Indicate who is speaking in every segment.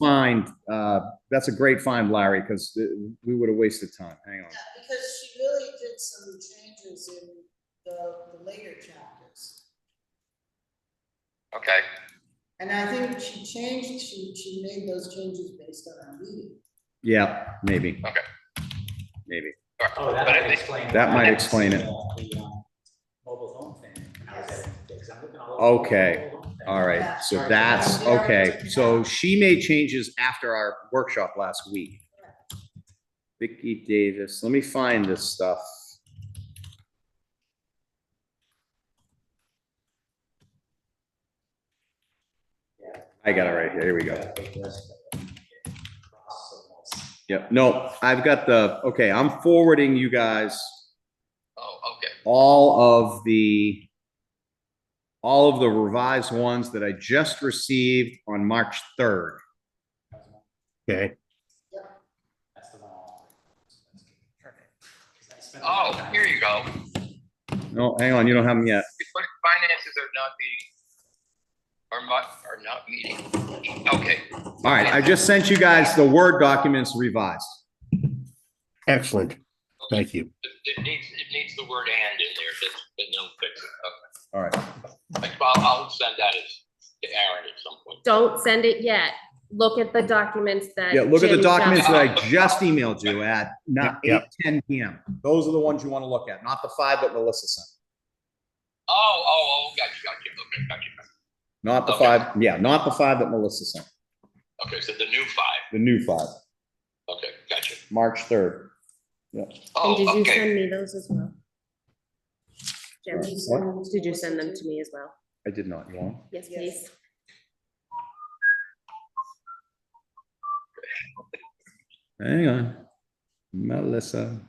Speaker 1: find, uh, that's a great find, Larry, because we would have wasted time. Hang on.
Speaker 2: Yeah, because she really did some changes in the, the later chapters.
Speaker 3: Okay,
Speaker 2: And I think she changed, she, she made those changes based on our meeting.
Speaker 1: Yeah, maybe.
Speaker 3: Okay.
Speaker 1: Maybe.
Speaker 4: Oh, that
Speaker 3: But I
Speaker 4: might
Speaker 3: think-
Speaker 4: explain.
Speaker 1: that
Speaker 4: I
Speaker 1: might
Speaker 4: didn't
Speaker 1: explain
Speaker 4: see
Speaker 1: it.
Speaker 4: the- the, um, Mobile home thing. How is that? Because I'm looking all over the
Speaker 1: Okay,
Speaker 4: mobile home thing.
Speaker 1: All
Speaker 2: Yeah.
Speaker 1: right, so that's, okay, so she made changes after our workshop last week. Vicky Davis, let me find this stuff.
Speaker 4: Yeah.
Speaker 1: I got it right here, here we go.
Speaker 4: Got a big list of them. Cross them all.
Speaker 1: Yep, no, I've got the, okay, I'm forwarding you guys
Speaker 3: oh, okay,
Speaker 1: all of the all of the revised ones that I just received on March third.
Speaker 5: Okay,
Speaker 4: That's the one. I'll- that's good. Perfect. 'Cause I spent a lot of
Speaker 3: oh,
Speaker 4: time-
Speaker 3: here you go.
Speaker 1: No, Oh, hang on, you don't have them yet.
Speaker 3: It's what finances are not being, are not, are not meeting, okay.
Speaker 1: All right, I just sent you guys the Word documents revised.
Speaker 5: excellent. Thank you.
Speaker 3: It, it needs, it needs the word and in there, that, that no fix it.
Speaker 1: All right,
Speaker 3: Okay. Like, I'll, I'll send that as, to Aaron at some point.
Speaker 6: Don't send it yet. Look at the documents that.
Speaker 1: yeah, look at the
Speaker 6: Jim
Speaker 1: documents
Speaker 6: just-
Speaker 1: that I just emailed you at not eight
Speaker 5: Yep.
Speaker 1: ten PM. Those are the ones you want to look at, not the five that Melissa sent.
Speaker 3: Oh, oh, oh, gotcha, gotcha, okay, gotcha.
Speaker 1: Not the
Speaker 3: Okay.
Speaker 1: five, yeah, not the five that Melissa sent,
Speaker 3: Okay, so the new five,
Speaker 1: the new five,
Speaker 3: okay, gotcha.
Speaker 1: March third.
Speaker 6: And
Speaker 3: Oh,
Speaker 6: did you
Speaker 3: okay,
Speaker 6: send me those as well? Jim,
Speaker 1: What?
Speaker 6: did you send them to me as well?
Speaker 1: I did not, you want?
Speaker 6: Yes,
Speaker 2: Yes.
Speaker 6: please.
Speaker 1: Hang on. Melissa.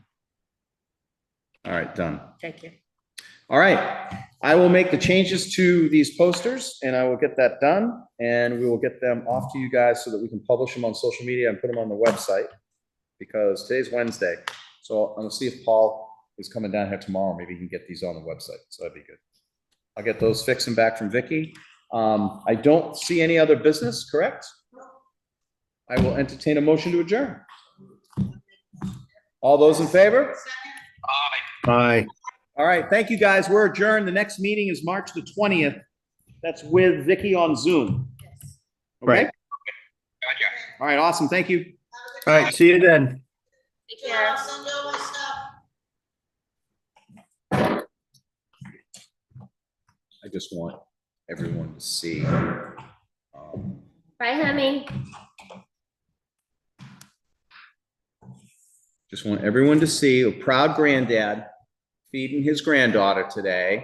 Speaker 1: All right, done.
Speaker 6: Thank you.
Speaker 1: All right. I will make the changes to these posters and I will get that done and we will get them off to you guys so that we can publish them on social media and put them on the website. Because today's Wednesday, so I'm gonna see if Paul is coming down here tomorrow. Maybe he can get these on the website. So that'd be good. I'll get those fixed and back from Vicky. Um, I don't see any other business, correct? I will entertain a motion to adjourn. All those in favor?
Speaker 3: aye.
Speaker 5: Bye.
Speaker 1: All right, thank you, guys. We're adjourned. The next meeting is March the twentieth. That's with Vicky on Zoom.
Speaker 2: Yes.
Speaker 1: Okay?
Speaker 5: Right.
Speaker 3: gotcha.
Speaker 1: All right, awesome. Thank you.
Speaker 5: All right, see you then.
Speaker 6: Take
Speaker 2: Joe, I'll send all my stuff.
Speaker 1: I just want everyone to see. um,
Speaker 6: Bye, honey.
Speaker 1: Just want everyone to see a proud granddad feeding his granddaughter today.